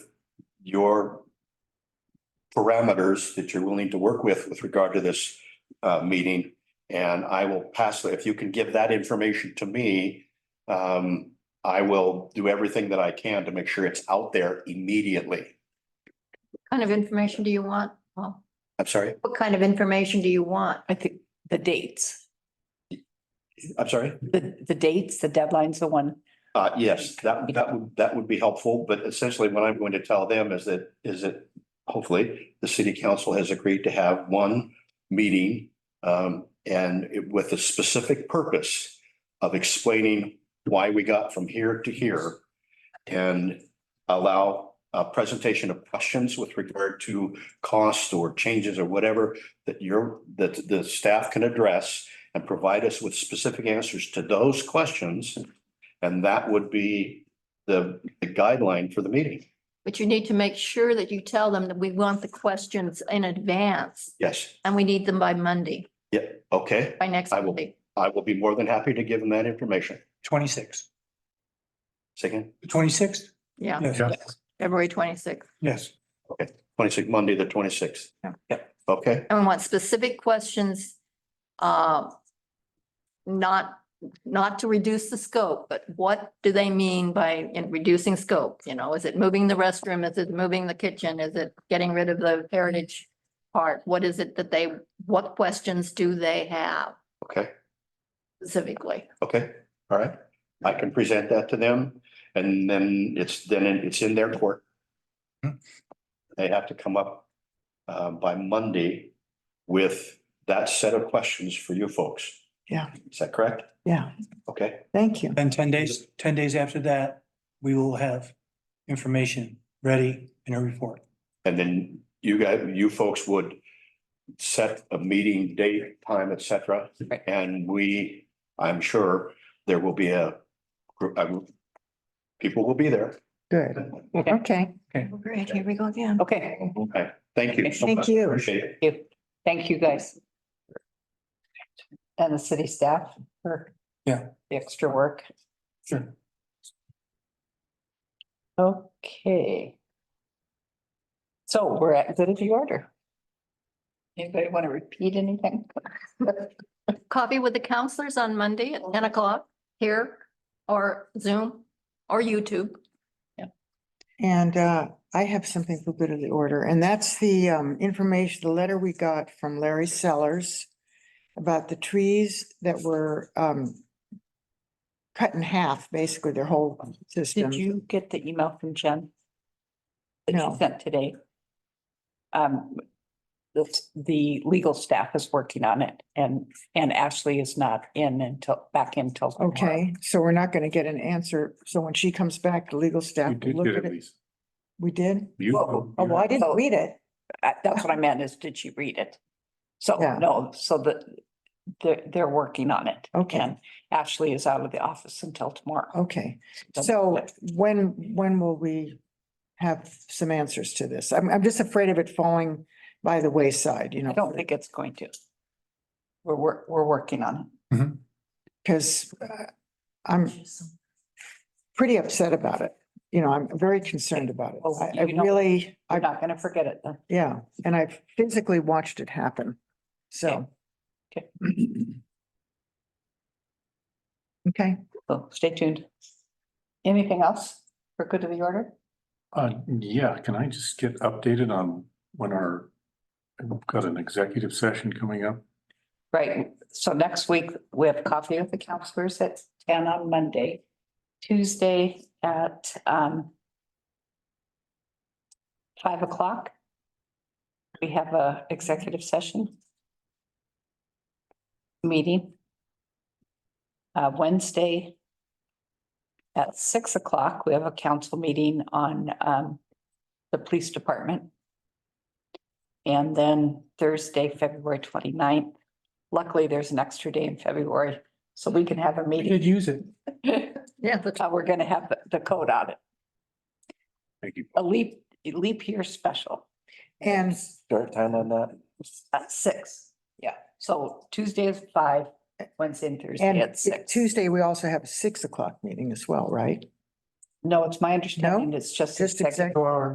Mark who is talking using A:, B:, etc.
A: your parameters that you're willing to work with with regard to this uh meeting. And I will pass, if you can give that information to me, um, I will do everything that I can to make sure it's out there immediately.
B: kind of information do you want? Paul?
A: I'm sorry,
B: What kind of information do you want?
C: I think the dates,
A: I'm sorry.
C: the, the dates, the deadlines, the one.
A: Uh, yes, that, that would, that would be helpful, but essentially what I'm going to tell them is that, is that hopefully the city council has agreed to have one meeting um, and it- with a specific purpose of explaining why we got from here to here and allow a presentation of questions with regard to cost or changes or whatever that your, that the staff can address and provide us with specific answers to those questions. And that would be the the guideline for the meeting.
B: But you need to make sure that you tell them that we want the questions in advance
A: Yes,
B: and we need them by Monday,
A: yeah, okay.
B: by next
A: I will.
B: Monday.
A: I will be more than happy to give them that information.
D: Twenty-six.
A: Second,
D: The twenty-sixth?
B: Yeah,
D: Yes.
B: February twenty-sixth.
D: Yes.
A: twenty-six, Monday, the twenty-sixth.
B: Yeah.
A: Okay,
B: And we want specific questions, uh, not, not to reduce the scope, but what do they mean by in reducing scope? You know, is it moving the restroom? Is it moving the kitchen? Is it getting rid of the heritage part? What is it that they, what questions do they have
A: okay,
B: specifically?
A: okay, all right. I can present that to them and then it's, then it's in their court. They have to come up uh, by Monday with that set of questions for you folks.
C: Yeah.
A: Is that correct?
C: Yeah,
A: Okay,
C: thank you.
D: And ten days, ten days after that, we will have information ready in a report.
A: And then you guys, you folks would set a meeting date, time, et cetera.
C: Right.
A: And we, I'm sure there will be a, group. um, people will be there.
C: Good.
B: Okay.
D: Okay.
B: Great, here we go again.
C: Okay,
A: Okay, thank you. so
C: Thank
A: much.
C: you.
A: Appreciate it.
C: you- thank you guys. And the city staff for.
D: Yeah.
C: The extra work.
D: Sure.
C: Okay. So we're at good of the order. Anybody want to repeat anything?
B: Coffee with the counselors on Monday at ten o'clock here or Zoom or YouTube.
E: And uh, I have something for good of the order, and that's the um, information, the letter we got from Larry Sellers about the trees that were um, cut in half, basically their whole system.
C: Did you get the email from Jen? That
E: No.
C: she sent today? Um, the, the legal staff is working on it and, and Ashley is not in until, back in till. tomorrow.
E: Okay, so we're not going to get an answer. So when she comes back, the legal staff will look at it. We did?
C: Well,
E: Oh, well, I didn't
C: So-
E: read it.
C: I- That's what I meant is, did she read it? So,
E: Yeah.
C: no, so that they're, they're working on it.
E: Okay.
C: And Ashley is out of the office until tomorrow.
E: Okay, so when, when will we have some answers to this? I'm, I'm just afraid of it falling by the wayside, you know?
C: I don't think it's going to. We're, we're, we're working on it.
E: Cause uh, I'm pretty upset about it. You know, I'm very concerned about it.
C: Well,
E: I, I
C: you know-
E: really,
C: We're
E: I,
C: not gonna forget it then.
E: yeah, and I've physically watched it happen. So.
C: Okay.
E: Okay,
C: So stay tuned. Anything else for good of the order?
F: Uh, yeah, can I just get updated on when our, I've got an executive session coming up?
C: Right, so next week we have coffee with the counselors at ten on Monday. Tuesday at um. Five o'clock. We have a executive session. Meeting. Uh, Wednesday. At six o'clock, we have a council meeting on um the police department. And then Thursday, February 29th. Luckily, there's an extra day in February, so we can have a meeting.
D: use it.
B: Yeah, the
C: Uh, We're gonna have the- the code on it,
F: Thank you.
C: a leap, a leap year special
E: and,
G: Start time on that?
C: at six. Yeah, so Tuesday is five, Wednesday and Thursday
E: and
C: at six.
E: Tuesday, we also have a six o'clock meeting as well, right?
C: No, it's my understanding, it's just.
E: Just
C: executive
E: executive.